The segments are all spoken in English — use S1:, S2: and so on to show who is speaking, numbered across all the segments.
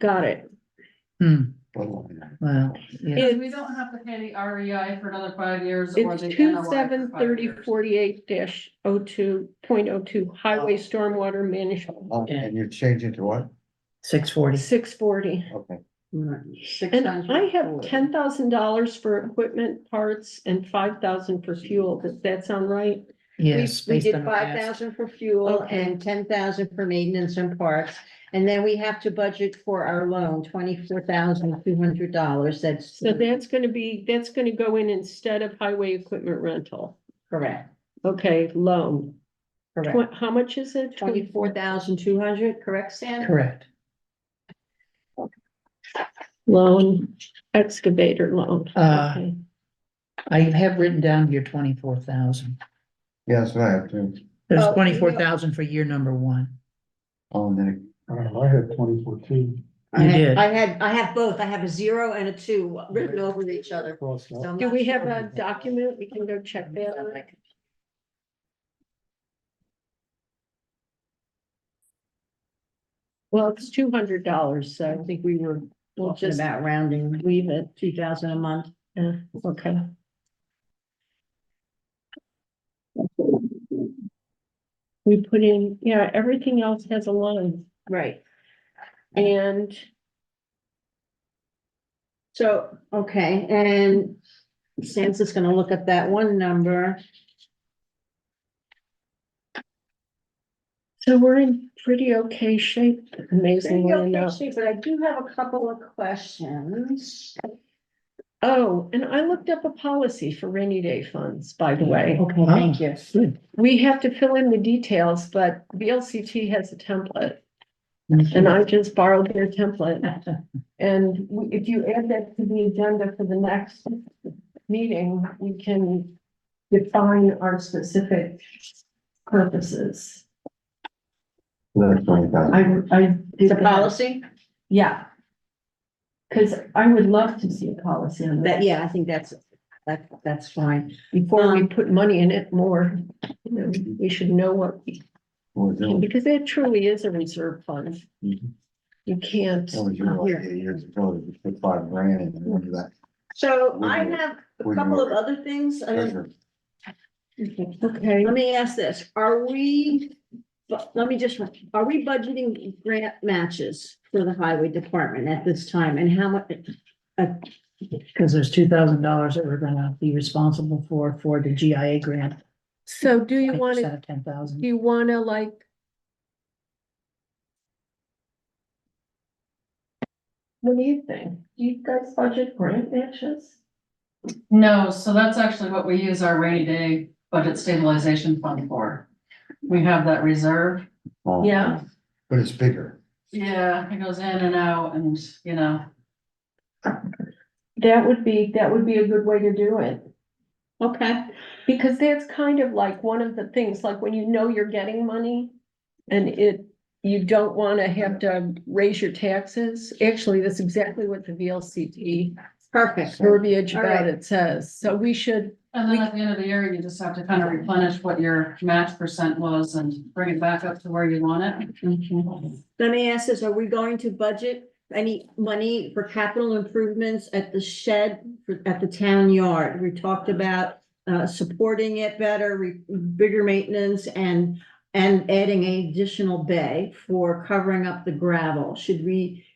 S1: Got it.
S2: Hmm,
S3: Well,
S2: well, yeah,
S1: It's
S4: We don't have to pay the REI for another five years. or the
S1: It's two
S4: NOI for
S1: seven
S4: five
S1: thirty
S4: years.
S1: forty-eight dash oh two, point oh two, highway stormwater management,
S3: And you're changing to what?
S2: six forty.
S1: six forty.
S3: Okay,
S4: Six
S1: And
S4: times
S1: I have
S4: forty.
S1: ten thousand dollars for equipment parts and five thousand for fuel. Does that sound right?
S5: We,
S2: Yes.
S5: we
S2: based
S5: did
S2: on our
S5: five
S2: past.
S5: thousand for fuel
S1: Okay.
S5: and ten thousand for maintenance and parts. And then we have to budget for our loan, twenty-four thousand two hundred dollars, that's
S1: So that's gonna be, that's gonna go in instead of highway equipment rental.
S5: correct,
S1: Okay, loan.
S5: correct.
S1: Tw- How much is it?
S5: Twenty-four thousand two hundred, correct, Sam?
S2: Correct.
S1: Loan, excavator loan.
S2: Uh,
S1: Okay.
S2: I have written down here twenty-four thousand.
S3: yes, I have to,
S2: There's
S5: Oh, yeah.
S2: twenty-four thousand for year number one.
S3: oh, then,
S6: I don't know, I had twenty fourteen.
S5: I
S2: You
S5: had-
S2: did.
S5: I had, I have both, I have a zero and a two written over each other.
S6: Crossed
S5: So
S6: out.
S5: I'm
S1: Do
S5: not
S1: we
S5: sure.
S1: have a document? We can go check that out. Well, it's two hundred dollars,
S5: I
S1: so
S5: think we were
S1: we'll
S5: talking
S1: just
S5: about rounding
S1: leave it.
S5: two thousand a month.
S1: Yeah, okay. We put in, yeah, everything else has a line
S5: Right.
S1: and
S5: So, okay, and Sam's just gonna look at that one number.
S1: so we're in pretty okay shape, amazingly enough.
S5: But I do have a couple of questions.
S1: Oh, and I looked up a policy for rainy day funds, by the way.
S5: Okay, thank you.
S2: Good.
S1: We have to fill in the details, but VLCT has a template and I just borrowed their template. And we- if you add that to the agenda for the next meeting, we can define our specific purposes.
S3: that's twenty thousand.
S1: I, I. did
S5: The
S1: that.
S5: policy,
S1: Yeah. Cause I would love to see a policy on
S5: that,
S1: that
S5: yeah, I think that's, that, that's fine.
S1: before we
S5: um,
S1: put money in it more. you know, We should know what, we
S3: What was
S1: can,
S3: it?
S1: because that truly is a reserve fund.
S3: Mhm.
S1: You can't.
S3: That was your idea years ago, you put five grand in, remember that?
S5: So
S3: We
S5: I
S3: will-
S5: have a
S3: we
S5: couple
S3: will-
S5: of other things. I mean,
S3: Treasure.
S1: Okay,
S5: let me ask this, are we, but let me just, are we budgeting grant matches for the highway department at this time and how uh, much?
S2: Because there's two thousand dollars that we're gonna be responsible for, for the GIA grant.
S1: so do you want to,
S2: Ten
S1: do
S2: thousand.
S1: you want to like? What do you think? Do you guys budget grant matches?
S4: No, so that's actually what we use our rainy day budget stabilization fund for. We have that reserve.
S3: Oh,
S1: Yeah.
S3: But it's bigger.
S4: Yeah, it goes in and out and, you know,
S1: That would be, that would be a good way to do it.
S5: Okay,
S1: Because that's kind of like one of the things, like when you know you're getting money and it, you don't want to have to raise your taxes. Actually, that's exactly what the VLCT
S5: perfect.
S1: verbiage
S5: All
S1: about
S5: right.
S1: it says. So we should,
S4: and then at the end of the year, you just have to kind of replenish what your match percent was and bring it back up to where you want it.
S5: Let me ask this, are we going to budget any money for capital improvements at the shed, for- at the town yard? We talked about uh, supporting it better, re- bigger maintenance and, and adding an additional bay for covering up the gravel. Should we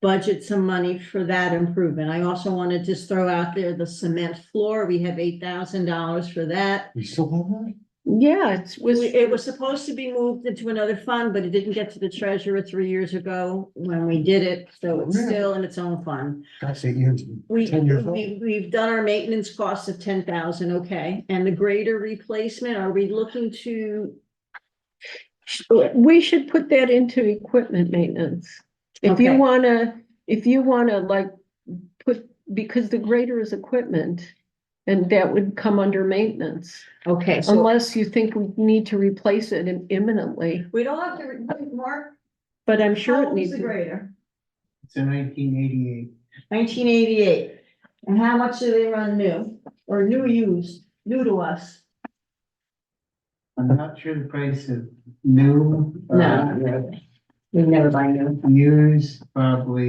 S5: budget some money for that improvement? I also want to just throw out there the cement floor. We have eight thousand dollars for that.
S3: You still have that?
S1: yeah, it's, was,
S5: We- It was supposed to be moved into another fund, but it didn't get to the treasurer three years ago when we did it, so it's
S3: Oh, Really?
S5: still in its own fund.
S3: That's eight years,
S5: We,
S3: ten years old.
S5: we, we've done our maintenance costs of ten thousand, okay, and the greater replacement, are we looking to?
S1: we should put that into equipment maintenance. If you
S5: Okay.
S1: wanna, if you wanna like put, because the grader is equipment and that would come under maintenance.
S5: Okay, so
S1: Unless you think we need to replace it im- imminently,
S5: we don't have to, re- Mark,
S1: but I'm
S5: how
S1: sure it
S5: old
S1: needs.
S5: is the
S1: to-
S5: grader?
S3: It's in nineteen eighty-eight.
S5: Nineteen eighty-eight, and how much do they run new, or new used, new to us?
S7: I'm not sure the price of new. uh,
S5: No.
S8: We never buy new.
S5: Use probably